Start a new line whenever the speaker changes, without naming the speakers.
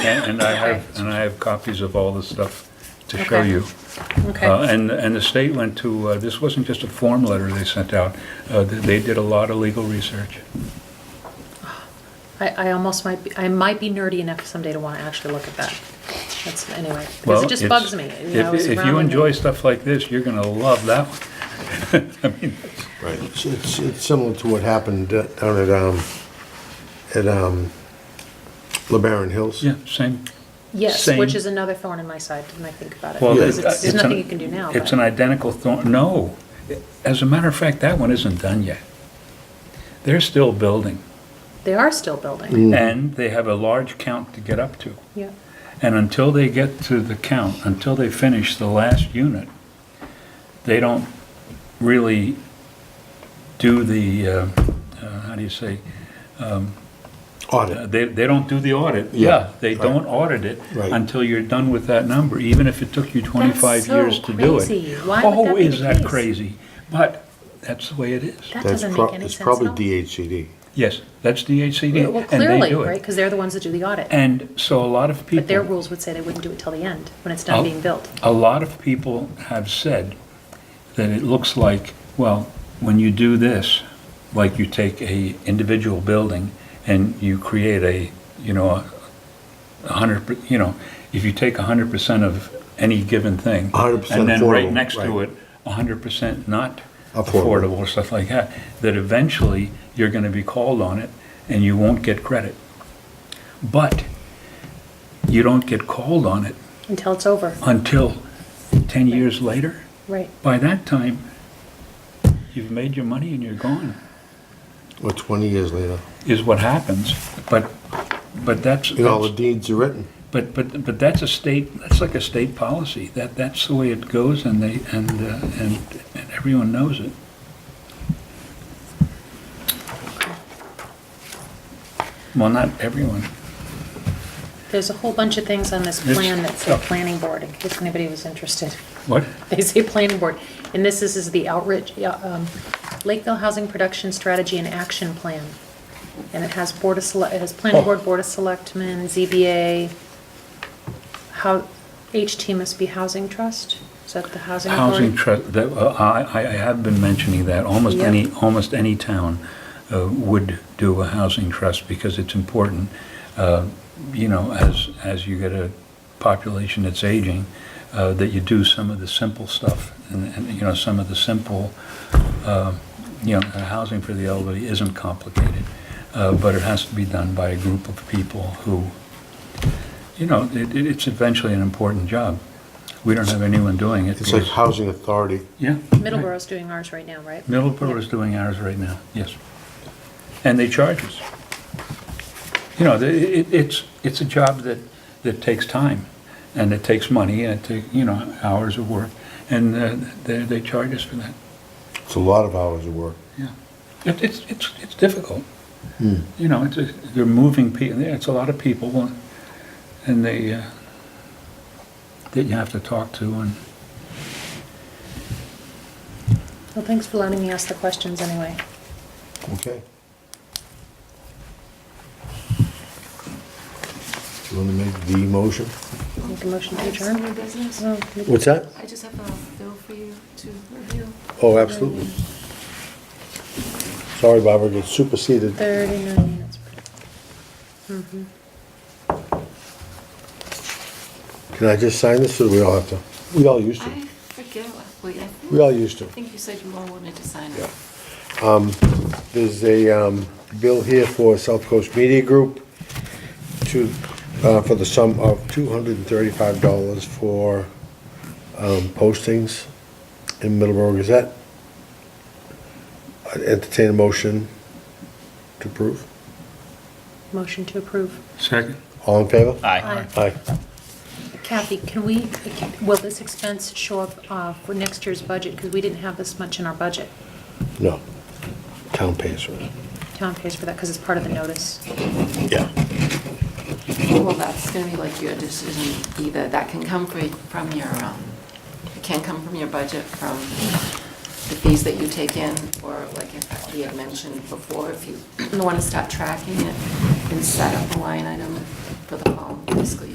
And and I have, and I have copies of all the stuff to show
Okay.
you. Uh,
Okay,
And, and the state went to, uh, this wasn't just a form letter they sent out, Uh, th- they did a lot of legal research.
I, I almost might, be I might be nerdy enough someday to want to actually look at that. That's, anyway, because
Well,
it just
it's-
bugs me. you know,
if-
it's
If you
around me.
enjoy stuff like this, you're going to love that one.
It's, it's it's similar to what happened d- down at, um, at, um, LeBaron Hills.
Yeah, same.
Yes,
same-
which is another thorn in my side when I think about it.
Well,
Because
it-
it's, there's
it's an-
nothing you can do now.
It's
but-
an identical thorn, no. As a matter of fact, that one isn't done yet. They're still building,
They are still
Mm.
building.
and they have a large count to get up to.
Yeah.
And until they get to the count, until they finish the last unit, they don't really do the, uh, uh, how do you say, uh,
Audit.
they, they don't do the audit.
Yeah,
They
right.
don't audit it
Right.
until you're done with that number, even if it took you 25
so
years to do it.
crazy. Why would that be
Oh, is
the
that
case?
crazy? But that's the way it is.
That
That's
doesn't
prob-
make any
it's
sense at
probably
all.
DHCD.
Yes, that's DHCD,
Well,
and they
clearly,
do
right,
it.
because they're the ones that do the audit.
And so a lot of people.
But their rules would say they wouldn't do it till the end, when it's done
Oh.
being built.
A lot of people have said that it looks like, well, when you do this, like you take a individual building and you create a, you know, a- a hundred, per- you know, if you take a hundred percent of any given thing.
A hundred percent
And then right
affordable,
next to it,
right.
a hundred percent not
Affordable.
affordable or stuff like that, that eventually you're gonna be called on it and you won't get credit. But you don't get called on it
Until it's over,
until 10 years later.
right.
By that time, you've made your money and you're gone,
Well, 20 years later,
is what happens. But, but that's,
and all the
that's-
deeds are written.
but, but, but that's a state, that's like a state policy. That, that's the way it goes and they, and, uh, and and everyone knows it. Well, not everyone.
There's a whole bunch of things on this
Yes.
plan that say planning board, in case anybody was interested.
What?
They say planning board, and this is, is the outreach, yeah, um, Lakeville Housing Production Strategy and Action Plan. And it has board of select, it has planning board, board of selectmen, ZBA, how, HT must be housing trust? Is that the housing
Housing
authority?
trust, that, uh, I, I I have been mentioning that, almost
Yeah.
any, almost any town uh, would do a housing trust because it's important, uh, you know, as, as you get a population that's aging, uh, that you do some of the simple stuff, and, and, you know, some of the simple, uh, you know, housing for the elderly isn't complicated, uh, but it has to be done by a group of people who, you know, it, it- it's eventually an important job. We don't have anyone doing it.
It's like
because-
housing authority.
yeah.
Middleborough's doing ours right now, right?
Middleborough is doing ours right now, yes. And they charge us. You know, the- it, it's, it's a job that, that takes time, and it takes money, and it takes, you know, hours of work, and uh, they, they charge us for that,
It's a lot of hours of work.
yeah. It, it's, it's, it's difficult. You know, it's, a- they're moving people, it's a lot of people, and they, uh, that you have to talk to, and,
Well, thanks for letting me ask the questions anyway.
Okay. You want to make the motion?
Make a motion to
Some
adjourn?
new business.
No, we-
What's that?
I just have a bill for you to review.
Oh, absolutely. Sorry, Barbara, it gets superseded.
Uh, 39 units. Mhm.
Can I just sign this, or do we all have to? We all used
I
to.
forget what, wait, I
We
think,
all used to.
I think you said you all wanted to sign
Yeah.
it.
There's a um, bill here for South Coast Media Group to, uh, for the sum of $235 for um, postings in Middleborough Gazette. I'd Entertain a motion to approve.
Motion to approve.
Second.
All in favor?
Aye.
Aye.
Kathy, can we, will this expense show up uh, for next year's budget? Because we didn't have this much in our budget.
No. Town pays for it.
Town pays for that because it's part of the notice.
Yeah.
Well, that's gonna be like your decision either. That can come fr- from your, um, it can come from your budget, from the fees that you take in, or like if we had mentioned before, if you wanna start tracking it and set up a line item for the fall fiscal year.